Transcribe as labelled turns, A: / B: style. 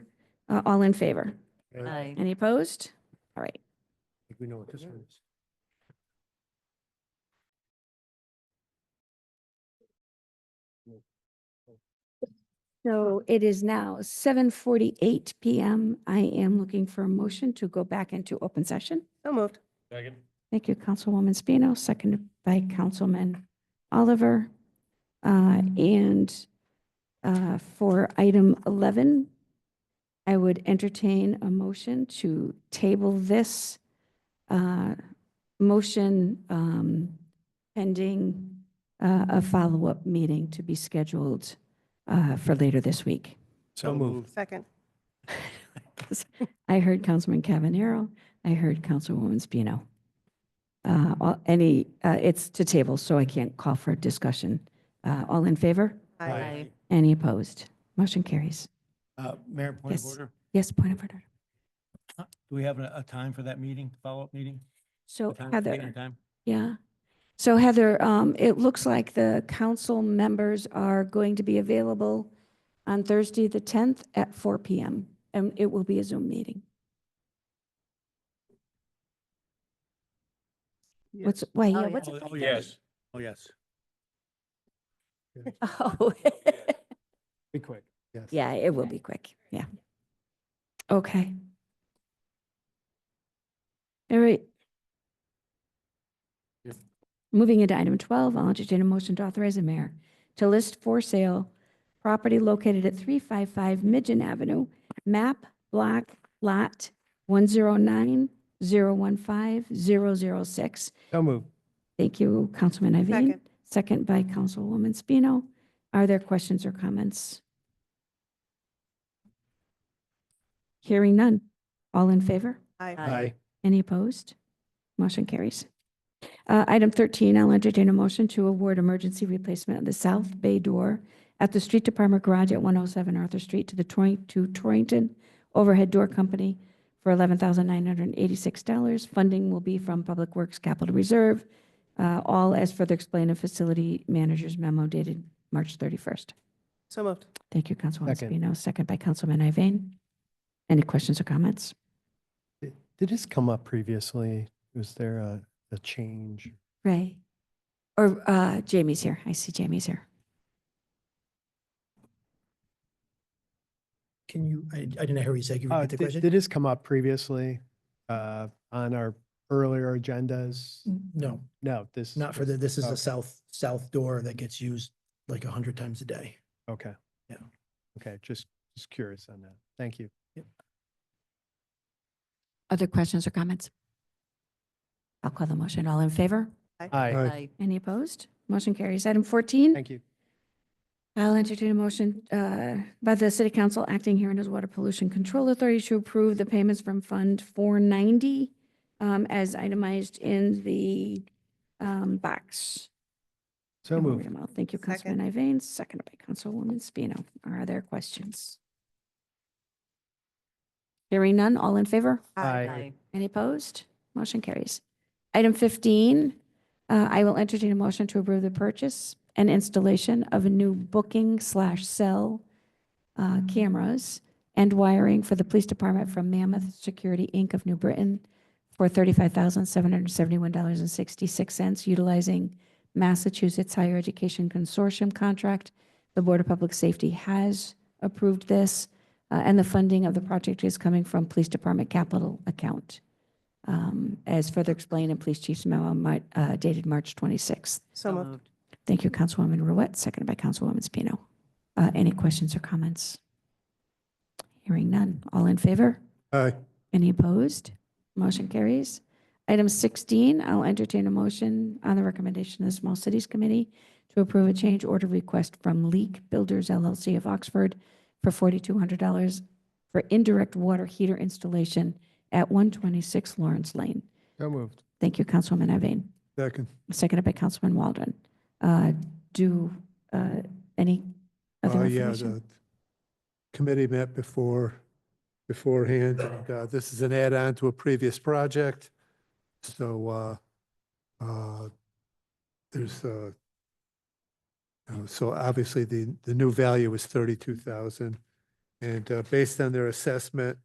A: Uh, All in favor?
B: Aye.
C: Aye.
A: Any opposed? All right.
B: think we know what this one is.
A: So it is now seven forty-eight PM. I am looking for a motion to go back into open session.
C: So moved.
B: Second.
A: Thank you, Councilwoman Spino, seconded by Councilman Oliver. Uh, And uh, for item 11, I would entertain a motion to table this uh, motion um, pending uh, a follow-up meeting to be scheduled uh, for later this week.
B: So moved.
C: Second.
A: I heard Councilman Cavanero. I heard Councilwoman Spino. Uh, all- Any, uh, it's to table, so I can't call for discussion. Uh, All in favor?
B: Aye.
A: Any opposed? Motion carries.
B: Uh, Mayor, point of
A: Yes.
B: order,
A: Yes, point of order.
B: do we have a, a time for that meeting, follow-up meeting?
A: So
B: A time, date
A: Oh, Heather,
B: and time?
A: yeah. So Heather, um, it looks like the council members are going to be available on Thursday, the 10th at 4 PM, and it will be a Zoom meeting. What's, why,
C: Oh,
A: yeah,
C: yeah.
A: what's?
B: Oh,
A: it
B: oh,
A: called?
B: yes. Oh, yes.
A: Oh.
B: Be quick. Yes.
A: Yeah, it will be quick. Yeah. Okay. All right.
B: Yep.
A: Moving into item 12, I'll entertain a motion to authorize the mayor to list for sale property located at 355 Midgeon Avenue, map, block, lot 109015006.
B: So moved.
A: Thank you, Councilman Iveyne.
C: Second.
A: Second by Councilwoman Spino. Are there questions or comments? Hearing none. All in favor?
C: Aye.
B: Aye.
A: Any opposed? Motion carries. Uh, Item 13, I'll entertain a motion to award emergency replacement of the south bay door at the Street Department Garage at 107 Arthur Street to the Tor- to Torrington Overhead Door Company for $11,986. Funding will be from Public Works Capital Reserve, uh, all as further explained in Facility Manager's memo dated March 31st.
C: So moved.
A: Thank you, Councilwoman
B: Second.
A: Spino, second by Councilman Iveyne. Any questions or comments?
D: Did did this come up previously? Was there a, a change?
A: Ray. Or uh, Jamie's here. I see Jamie's here.
E: Can you, I, I didn't hear you say, can you
B: Mm-hmm.
D: Uh,
E: repeat the
D: did-
E: question?
D: Did this come up previously uh, on our earlier agendas?
E: No,
D: No, this.
E: not for the, this is
D: Okay.
B: Oh.
E: the south, south door that gets used like a hundred times a day.
D: Okay.
E: Yeah.
D: Okay, just, just curious on that. Thank you.
A: Other questions or comments? I'll call the motion. All in favor?
D: Aye,
A: Any opposed? Motion carries. Item 14,
D: thank you.
A: I'll entertain a motion uh, by the City Council acting here as Water Pollution Control Authority to approve the payments from Fund 490 um, as itemized in the um, box.
D: So
A: I'll read
D: moved.
A: them all. Thank you,
C: Second.
A: Councilman Iveyne, seconded by Councilwoman Spino. Are there questions? Hearing none, all in favor?
D: Aye.
A: Any opposed? Motion carries. Item 15, uh, I will entertain a motion to approve the purchase and installation of a new booking slash cell uh, cameras and wiring for the police department from Mammoth Security, Inc. of New Britain for $35,771.66, utilizing Massachusetts Higher Education Consortium contract. The Board of Public Safety has approved this. Uh, And the funding of the project is coming from Police Department capital account, um, as further explained in Police Chief's memo mi- uh, dated March 26th.
C: So moved.
A: Thank you, Councilwoman Ruette, seconded by Councilwoman Spino. Uh, Any questions or comments? Hearing none. All in favor?
B: Aye.
A: Any opposed? Motion carries. Item 16, I'll entertain a motion on the recommendation of the Small Cities Committee to approve a change order request from Leak Builders LLC of Oxford for $4,200 for indirect water heater installation at 126 Lawrence Lane.
D: So moved.
A: Thank you, Councilwoman Iveyne.
B: Second.
A: Seconded by Councilman Waldron. Uh, Do uh, any other
F: Uh, yeah,
A: information?
F: the committee met before, beforehand. and, uh, This is an add-on to a previous project. So uh, uh, there's, uh, uh, so obviously the, the new value is 32,000. And uh, based on their assessment,